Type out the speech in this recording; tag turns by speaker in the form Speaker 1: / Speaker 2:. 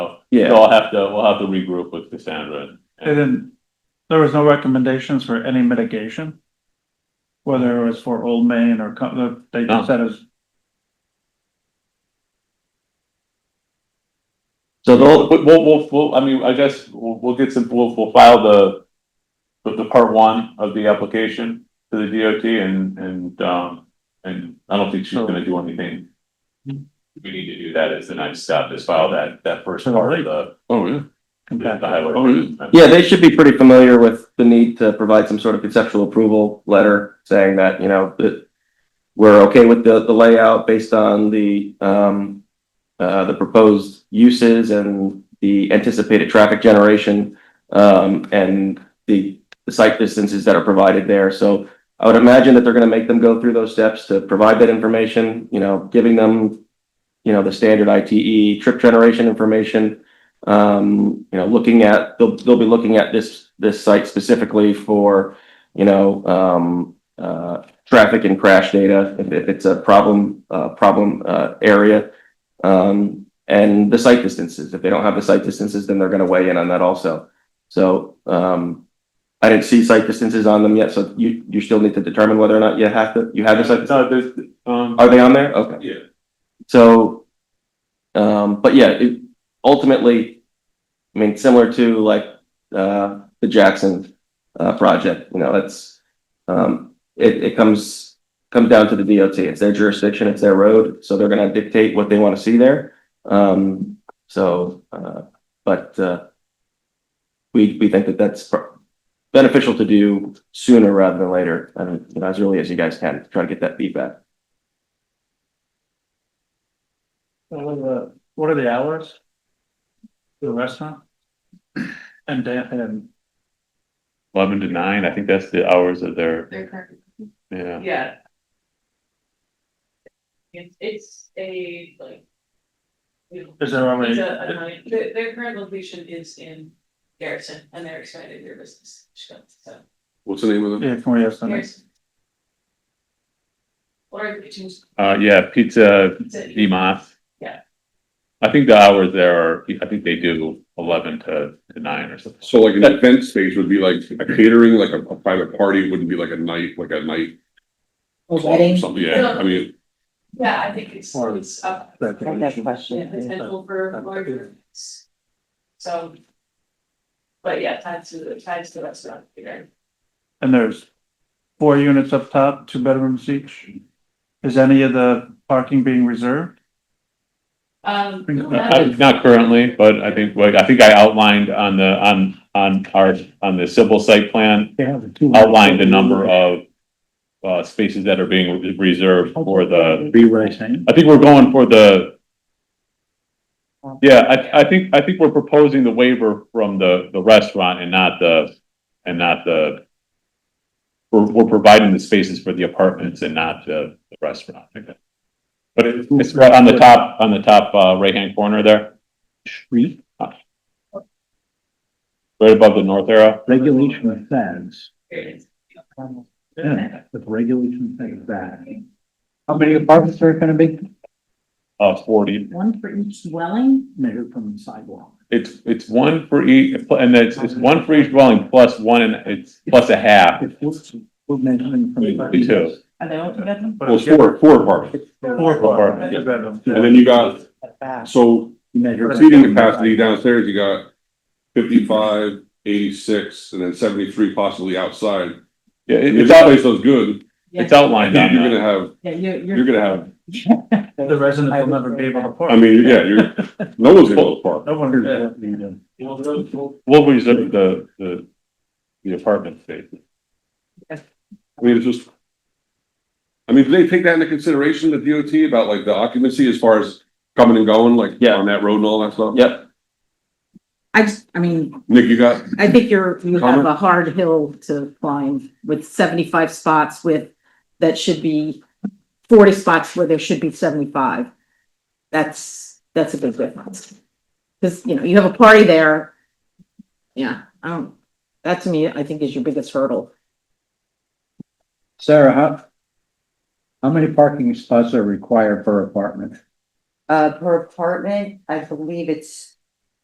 Speaker 1: So
Speaker 2: Yeah,
Speaker 1: I'll have to, we'll have to regroup with Cassandra.
Speaker 3: They didn't, there was no recommendations for any mitigation? Whether it was for Old Main or, co- the- they
Speaker 1: No.
Speaker 3: just said it's
Speaker 2: so
Speaker 1: We'll,
Speaker 2: the,
Speaker 1: we'll, we'll- we'll- I mean, I guess we'll, we'll get some, we'll, we'll file the, the, the part one of the application to the DOT and, and, um, and I don't think she's gonna do anything. We need to do that as the next step, is file that, that first part of the,
Speaker 4: Oh, yeah.
Speaker 1: the
Speaker 3: compatible.
Speaker 4: Oh,
Speaker 1: highway.
Speaker 4: yeah.
Speaker 2: yeah, they should be pretty familiar with the need to provide some sort of conceptual approval letter saying that, you know, that we're okay with the, the layout based on the, um, uh, the proposed uses and the anticipated traffic generation, um, and the, the site distances that are provided there. So I would imagine that they're gonna make them go through those steps to provide that information, you know, giving them, you know, the standard ITE trip generation information, um, you know, looking at, they'll, they'll be looking at this, this site specifically for, you know, um, uh, traffic and crash data, if, if it's a problem, uh, problem, uh, area. Um, and the site distances, if they don't have the site distances, then they're gonna weigh in on that also. So, um, I didn't see site distances on them yet, so you, you still need to determine whether or not you have to, you have the site,
Speaker 1: No, there's, um,
Speaker 2: are they on there? Okay.
Speaker 1: yeah,
Speaker 2: So, um, but yeah, it, ultimately, I mean, similar to like, uh, the Jackson, uh, project, you know, that's, um, it, it comes, comes down to the DOT. It's their jurisdiction, it's their road, so they're gonna dictate what they wanna see there. Um, so, uh, but, uh, we, we think that that's pro- beneficial to do sooner rather than later, I mean, you know, as early as you guys can, try to get that feedback.
Speaker 3: What are the, what are the hours? The restaurant? And Dan, and
Speaker 1: eleven to nine, I think that's the hours of their,
Speaker 5: They're current.
Speaker 1: yeah.
Speaker 5: Yeah. It's, it's a, like. you know,
Speaker 3: is there
Speaker 5: It's
Speaker 3: already,
Speaker 5: a, a night- their, their current location is in Garrison, and they're expanding their business, so,
Speaker 4: What's the name of
Speaker 3: yeah, can we have some?
Speaker 5: Garrison. Or it was
Speaker 1: Uh, yeah, pizza, Demoth.
Speaker 5: Yeah.
Speaker 1: I think the hours there are, I think they do eleven to to nine or something.
Speaker 4: So like an event space would be like a catering, like a, a private party, wouldn't be like a night, like a night.
Speaker 6: Wedding?
Speaker 4: Something, yeah, I mean,
Speaker 5: yeah, I think it's, it's up,
Speaker 6: I have that question.
Speaker 5: yeah, potential for larger. events. So. But yeah, tied to, the tied to the restaurant, here.
Speaker 3: And there's four units up top, two bedrooms each? Is any of the parking being reserved?
Speaker 5: Um.
Speaker 1: Uh, Not currently, but I think, like, I think I outlined on the, on, on our, on the civil site plan, outlined the number of uh, spaces that are being reserved for the,
Speaker 3: Be what I'm saying.
Speaker 1: I think we're going for the yeah, I, I think, I think we're proposing the waiver from the, the restaurant and not the, and not the we're, we're providing the spaces for the apartments and not the, the restaurant. I think. But it- it's right on the top, on the top, uh, right-hand corner there. Street? Right above the north arrow.
Speaker 7: Regulation says,
Speaker 5: Here it is.
Speaker 7: yeah, the regulation says that. How many apartments are gonna be?
Speaker 1: uh, forty.
Speaker 6: One for each dwelling?
Speaker 7: Measured from the sidewalk.
Speaker 1: It's, it's one for each, and it's, it's one for each dwelling plus one and it's plus a half.
Speaker 7: If we're, we're measuring from. the-
Speaker 1: Two.
Speaker 6: Are they all two bedroom?
Speaker 1: Well, it's four, four apartments.
Speaker 3: Four
Speaker 1: apartments,
Speaker 3: apartments,
Speaker 1: yeah.
Speaker 3: two bedrooms.
Speaker 4: and then you got,
Speaker 6: Fast.
Speaker 4: so
Speaker 7: You measure-
Speaker 4: seating capacity downstairs, you got 55, 86, and then seventy-three possibly outside.
Speaker 1: Yeah, it-
Speaker 4: If
Speaker 1: it's
Speaker 4: that
Speaker 1: out,
Speaker 4: place does good,
Speaker 1: it's outlined on uh,
Speaker 4: you're
Speaker 1: that.
Speaker 4: gonna have,
Speaker 6: Yeah, you're, you're.
Speaker 4: you're gonna have,
Speaker 3: The residents will never be able to park.
Speaker 4: I mean, yeah, you're, no one's gonna park.
Speaker 3: No one, yeah.
Speaker 1: We'll reserve the, the, the apartment space.
Speaker 4: I mean, it's just. I mean, do they take that into consideration, the DOT, about like the occupancy as far as coming and going, like
Speaker 2: Yeah.
Speaker 4: on that road and all that stuff?
Speaker 2: Yep.
Speaker 6: I just, I mean,
Speaker 4: Nick, you got?
Speaker 6: I think you're, you have
Speaker 4: Comment?
Speaker 6: a hard hill to climb with seventy-five spots with, that should be forty spots where there should be seventy-five. That's, that's a big difference. Cause, you know, you have a party there. Yeah, I don't, that to me, I think is your biggest hurdle.
Speaker 7: Sarah, how, how many parking spots are required per apartment?
Speaker 8: Uh, per apartment, I believe it's